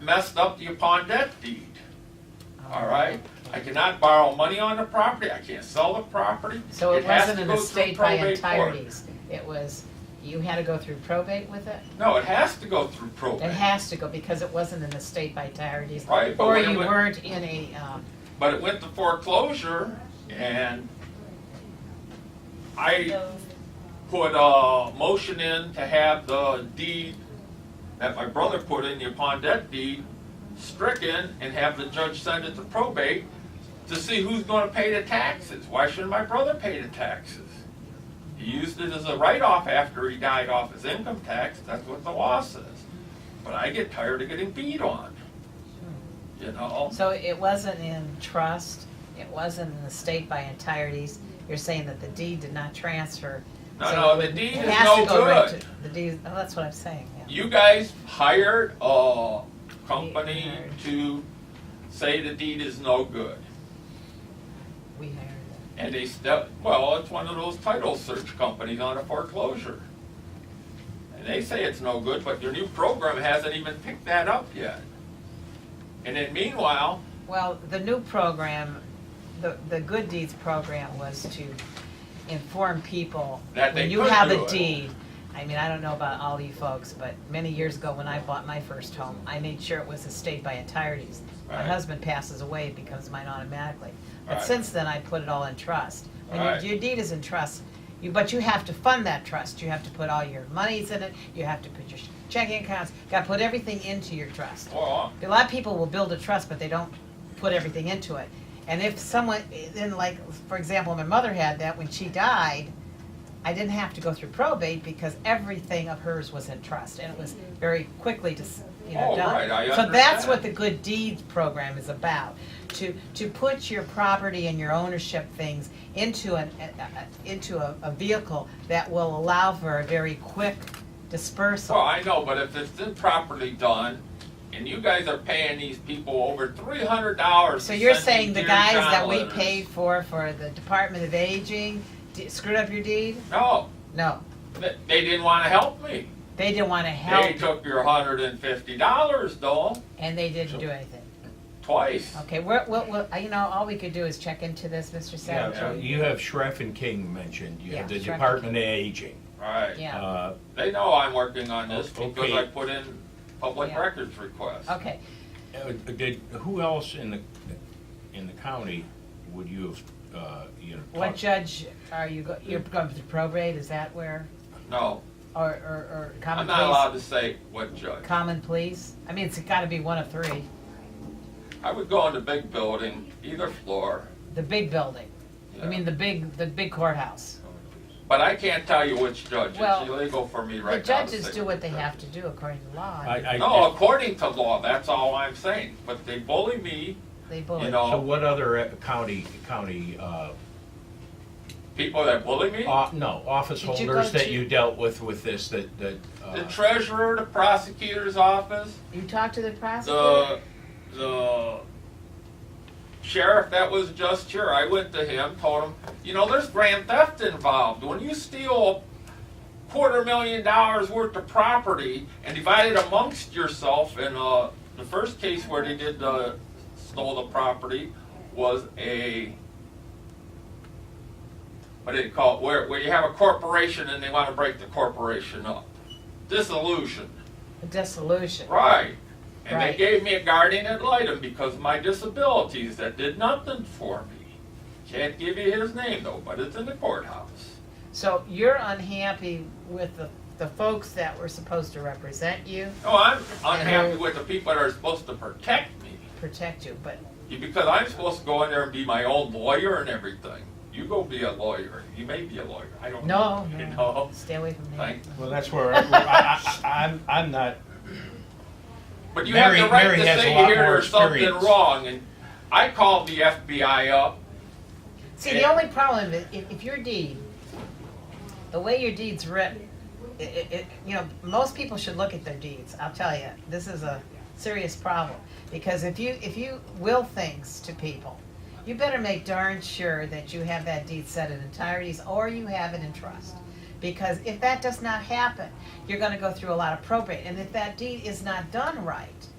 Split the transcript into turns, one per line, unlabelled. messed up the upon debt deed, all right? I cannot borrow money on the property, I can't sell the property.
So it
has
wasn't
to
an
go through
estate by
probate court.
entireties, it was, you had to go through probate with it?
No, it has to go through
It
probate,
has to go, because it wasn't an estate by entireties.
Right, but
Or
when it
you
went-
weren't in a, um,
but it went to foreclosure and I put a motion in to have the deed that my brother put in, the upon debt deed, stricken and have the judge send it to probate to see who's gonna pay the taxes. Why shouldn't my brother pay the taxes? He used it as a write-off after he died off his income tax, that's what the law says. But I get tired of getting beat on, you know?
so it wasn't in trust, it wasn't an estate by entireties. You're saying that the deed did not transfer.
No,
so
no,
it
the
would-
deed
it
is
has
no
to go right
good.
to- The deed, oh, that's what I'm saying, yeah.
You guys hired a company to say the deed is no good.
We hired
And they step, well, it's one of those title search companies on a foreclosure. And they say it's no good, but your new program hasn't even picked that up yet. And then meanwhile,
it. Well, the new program, the, the good deeds program was to inform people.
That they
When you
could
have
do
a
it.
deed, I mean, I don't know about all you folks, but many years ago when I bought my first home, I made sure it was estate by entireties. My
Right.
husband passes away, it becomes mine automatically. But
Right.
since then, I put it all in trust. When
Right.
your, your deed is in trust, you, but you have to fund that trust. You have to put all your monies in it, you have to put your checking accounts, gotta put everything into your trust.
well,
A lot of people will build a trust, but they don't put everything into it. And if someone, then like, for example, my mother had that when she died, I didn't have to go through probate because everything of hers was in trust and it was very quickly just, you know,
Oh,
done.
right, I
So that's
understand.
what the good deeds program is about, to, to put your property and your ownership things into an, a- a- into a, a vehicle that will allow for a very quick dispersal.
well, I know, but if it's improperly done, and you guys are paying these people over three hundred dollars.
So you're saying the guys that we paid for, for the Department of Aging, d- screwed up your deed?
No,
No,
they, they didn't wanna help me.
they didn't wanna
They
help,
took your hundred and fifty dollars though,
and they didn't do anything.
twice.
Okay, we're, we'll, we'll, uh, you know, all we could do is check into this, Mr.
Yeah,
Savage.
so you have Shreff and King mentioned, you have
Yeah,
the
Shreff and
Department of Aging.
Right,
Yeah.
Uh,
they know I'm working on this because
Okay.
I put in public
Yeah.
records requests.
Okay,
uh, Did, who else in the, in the county would you have, uh, you know?
what
talked-
judge are you, go- you're going to probate, is that where,
No,
or, or, or
I'm
common
not allowed
pleas?
to say what judge.
Common pleas? I mean, it's gotta be one of three,
I would go in the big building, either floor.
the big building, I
yeah.
mean, the big, the big courthouse.
But I can't tell you which judge.
Well,
It's illegal for me
The
right now to
judges
say
do what they
judge.
have to do according to law,
I,
I mean,
I.
No, according to law, that's all I'm saying. But they bully me,
they
you
bully.
So
know,
what other uh, county, county, uh,
people that bully me,
off- no, office
Did you go
holders that
to-
you dealt with, with this, that, that,
the
uh,
treasurer, the prosecutor's office,
You talked to the prosecutor?
the the sheriff that was just here, I went to him, told him, you know, there's grand theft involved. When you steal a quarter million dollars worth of property and divide it amongst yourself, in uh, the first case where they did the stole the property was a what do you call it? Where, where you have a corporation and they want to break the corporation up. Dissolution.
A Dissolution.
Right. And
Right.
they gave me a guardian ad litem because of my disabilities that did nothing for me. Can't give you his name though, but it's in the courthouse.
So you're unhappy with the, the folks that were supposed to represent you,
No, I'm unhappy
Uh-huh.
with the people that are supposed to protect me
protect you, but,
because I'm supposed to go in there and be my own lawyer and everything. You go be a lawyer. You may be a lawyer. I don't
no,
know. Oh, You
no,
know.
stay away from that.
Thank-
well, that's where, I- where I, I, I'm, I'm not,
But you
Mary-
have the right
Mary
to
has
say
a lot
here
more
there's something
experience.
wrong. And I called the FBI up
See, the only problem is, if, if your deed, the way your deed's written, i i it, you know, most people should look at their deeds, I'll tell you, this is a serious problem. Because if you, if you will things to people, you better make darn sure that you have that deed set in entireties, or you have it in trust. Because if that does not happen, you're gonna go through a lot of probate, and if that deed is not done right,